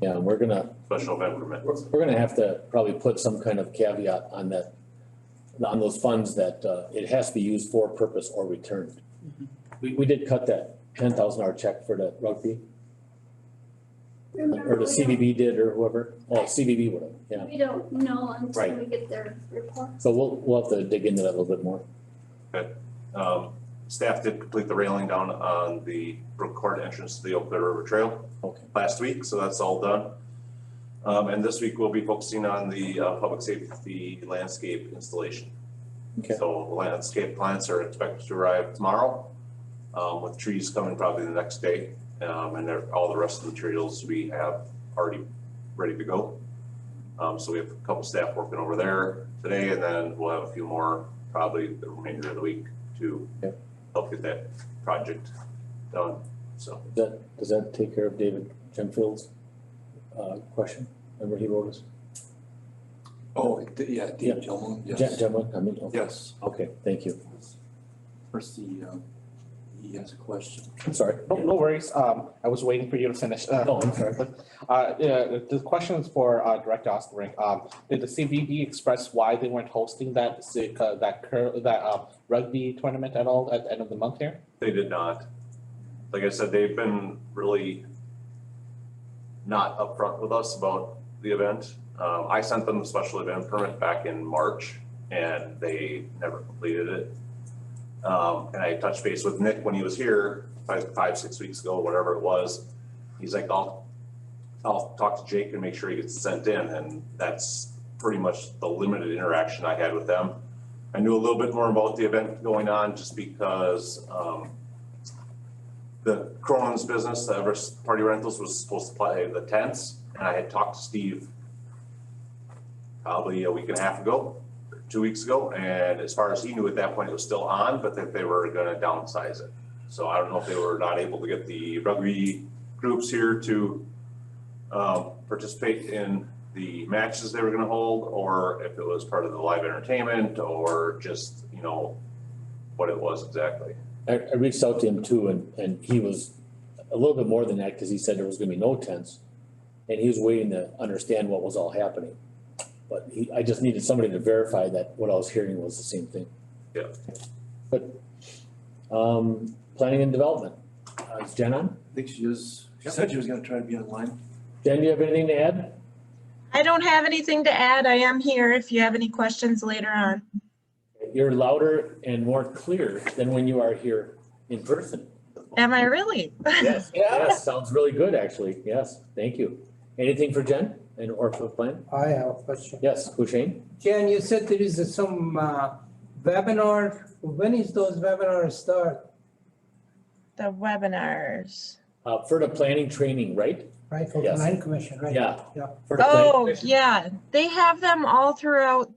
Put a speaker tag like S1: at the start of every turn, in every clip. S1: Yeah, we're gonna,
S2: special event permit.
S1: we're we're gonna have to probably put some kind of caveat on that, on those funds that, uh, it has to be used for purpose or returned. We, we did cut that ten thousand dollar check for the rugby, or the CVB did, or whoever, oh, CVB would have, yeah.
S3: We don't know until
S1: Right.
S3: we get their report.
S1: So we'll, we'll have to dig into that a little bit more.
S2: Um, staff did complete the railing down on the Brook Court entrance to the Oak Clear River Trail
S1: Okay.
S2: last week, so that's all done. Um, and this week we'll be focusing on the, uh, public safety landscape installation.
S1: Okay.
S2: So landscape plants are expected to arrive tomorrow, um, with trees coming probably the next day. Um, and there- all the rest of the materials we have already ready to go. Um, so we have a couple staff working over there today, and then we'll have a few more probably the remainder of the week to
S1: Yep.
S2: help get that project done, so.
S1: Does that, does that take care of David Genfield's, uh, question? Remember he wrote us?
S4: Oh, d- yeah,
S1: Yeah.
S4: Dean Gilman,
S1: Gen-
S4: yes,
S1: Genfeld, I mean, okay,
S4: yes.
S1: okay, thank you.
S4: First, he, um, he has a question.
S1: I'm sorry.
S5: No, no worries. Um, I was waiting for you to finish. Uh,
S1: Oh, I'm sorry.
S5: Uh, yeah, the question is for, uh, Director Osterring. Um, did the CVB express why they weren't hosting that, si- uh, that cur, that, uh, rugby tournament at all at the end of the month here?
S2: They did not. Like I said, they've been really not upfront with us about the event. Um, I sent them the special event permit back in March and they never completed it. Um, and I touched base with Nick when he was here, five, five, six weeks ago, whatever it was. He's like, I'll, I'll talk to Jake and make sure he gets sent in, and that's pretty much the limited interaction I had with them. I knew a little bit more about the event going on just because um the Cronin's business, the Everest Party Rentals was supposed to play the tents and I had talked to Steve probably a week and a half ago, two weeks ago, and as far as he knew at that point, it was still on, but that they were gonna downsize it. So I don't know if they were not able to get the rugby groups here to um participate in the matches they were gonna hold, or if it was part of the live entertainment, or just, you know, what it was exactly.
S1: I, I reached out to him too and, and he was a little bit more than that, cause he said there was gonna be no tents. And he was waiting to understand what was all happening. But he, I just needed somebody to verify that what I was hearing was the same thing.
S2: Yeah.
S1: But, um, planning and development, uh, is Jen on?
S4: I think she is, she said she was gonna try to be online.
S1: Jen, do you have anything to add?
S6: I don't have anything to add. I am here if you have any questions later on.
S1: You're louder and more clear than when you are here in person.
S6: Am I really?
S1: Yes, yes, sounds really good, actually, yes, thank you. Anything for Jen and or for plan?
S7: I have a question.
S1: Yes, Hushain?
S7: Jan, you said there is some uh, webinar. When is those webinars start,
S6: The webinars.
S1: Uh, for the planning training, right?
S7: right, for the
S1: Yes.
S7: land commission, right?
S1: Yeah.
S7: Yeah.
S1: For the planning
S6: Oh,
S1: commission.
S6: yeah, they have them all throughout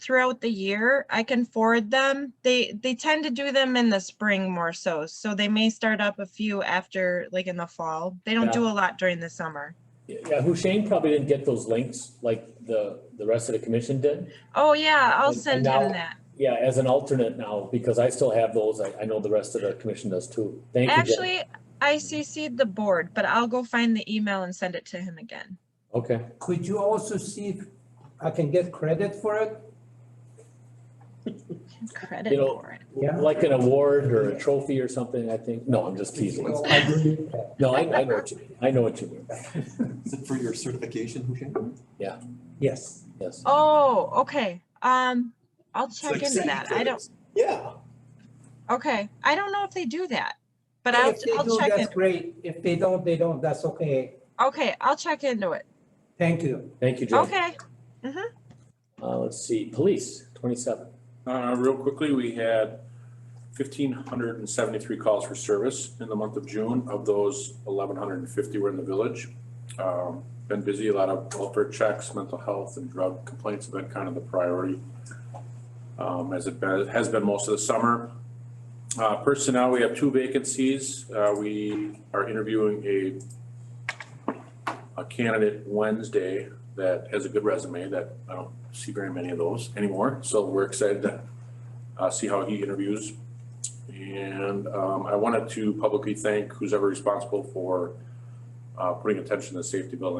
S6: throughout the year. I can forward them. They they tend to do them in the spring more so. So they may start up a few after like in the fall. They don't do a lot during the summer.
S1: Yeah, Hushain probably didn't get those links like the, the rest of the commission did.
S6: Oh, yeah, I'll
S1: And- and
S6: send
S1: now-
S6: him that.
S1: Yeah, as an alternate now, because I still have those, I, I know the rest of the commission does too. Thank you, Jen.
S6: Actually, I CC'd the board, but I'll go find the email and send it to him again.
S1: Okay,
S7: Could you also see if I can get credit for it?
S6: Credit
S1: You know,
S6: for it.
S7: Yeah.
S1: like an award or a trophy or something, I think, no, I'm just teasing.
S7: No, Oh, I believe that.
S1: No, I, I know what you mean, I know what you mean,
S4: Is it for your certification, Hushain?
S7: Yes.
S1: yes.
S6: Oh, okay. Um, I'll check into that. I don't,
S4: Yeah.
S6: okay. I don't know if they do that, but I'll,
S7: If they
S6: I'll
S7: do,
S6: check
S7: that's
S6: in.
S7: great. If they don't, they don't, that's okay.
S6: Okay, I'll check into it.
S7: Thank you.
S1: Thank you, Jen.
S6: Okay.
S1: Uh, let's see, police, twenty-seven.
S8: Uh, real quickly, we had fifteen hundred and seventy-three calls for service in the month of June. Of those, eleven hundred and fifty were in the village. Um, been busy, a lot of welfare checks, mental health and drug complaints have been kind of the priority. Um, as it been- has been most of the summer. Uh, personnel, we have two vacancies. Uh, we are interviewing a a candidate Wednesday that has a good resume that I don't see very many of those anymore. So we're excited to uh, see how he interviews. And um, I wanted to publicly thank who's ever responsible for uh, putting attention to the safety building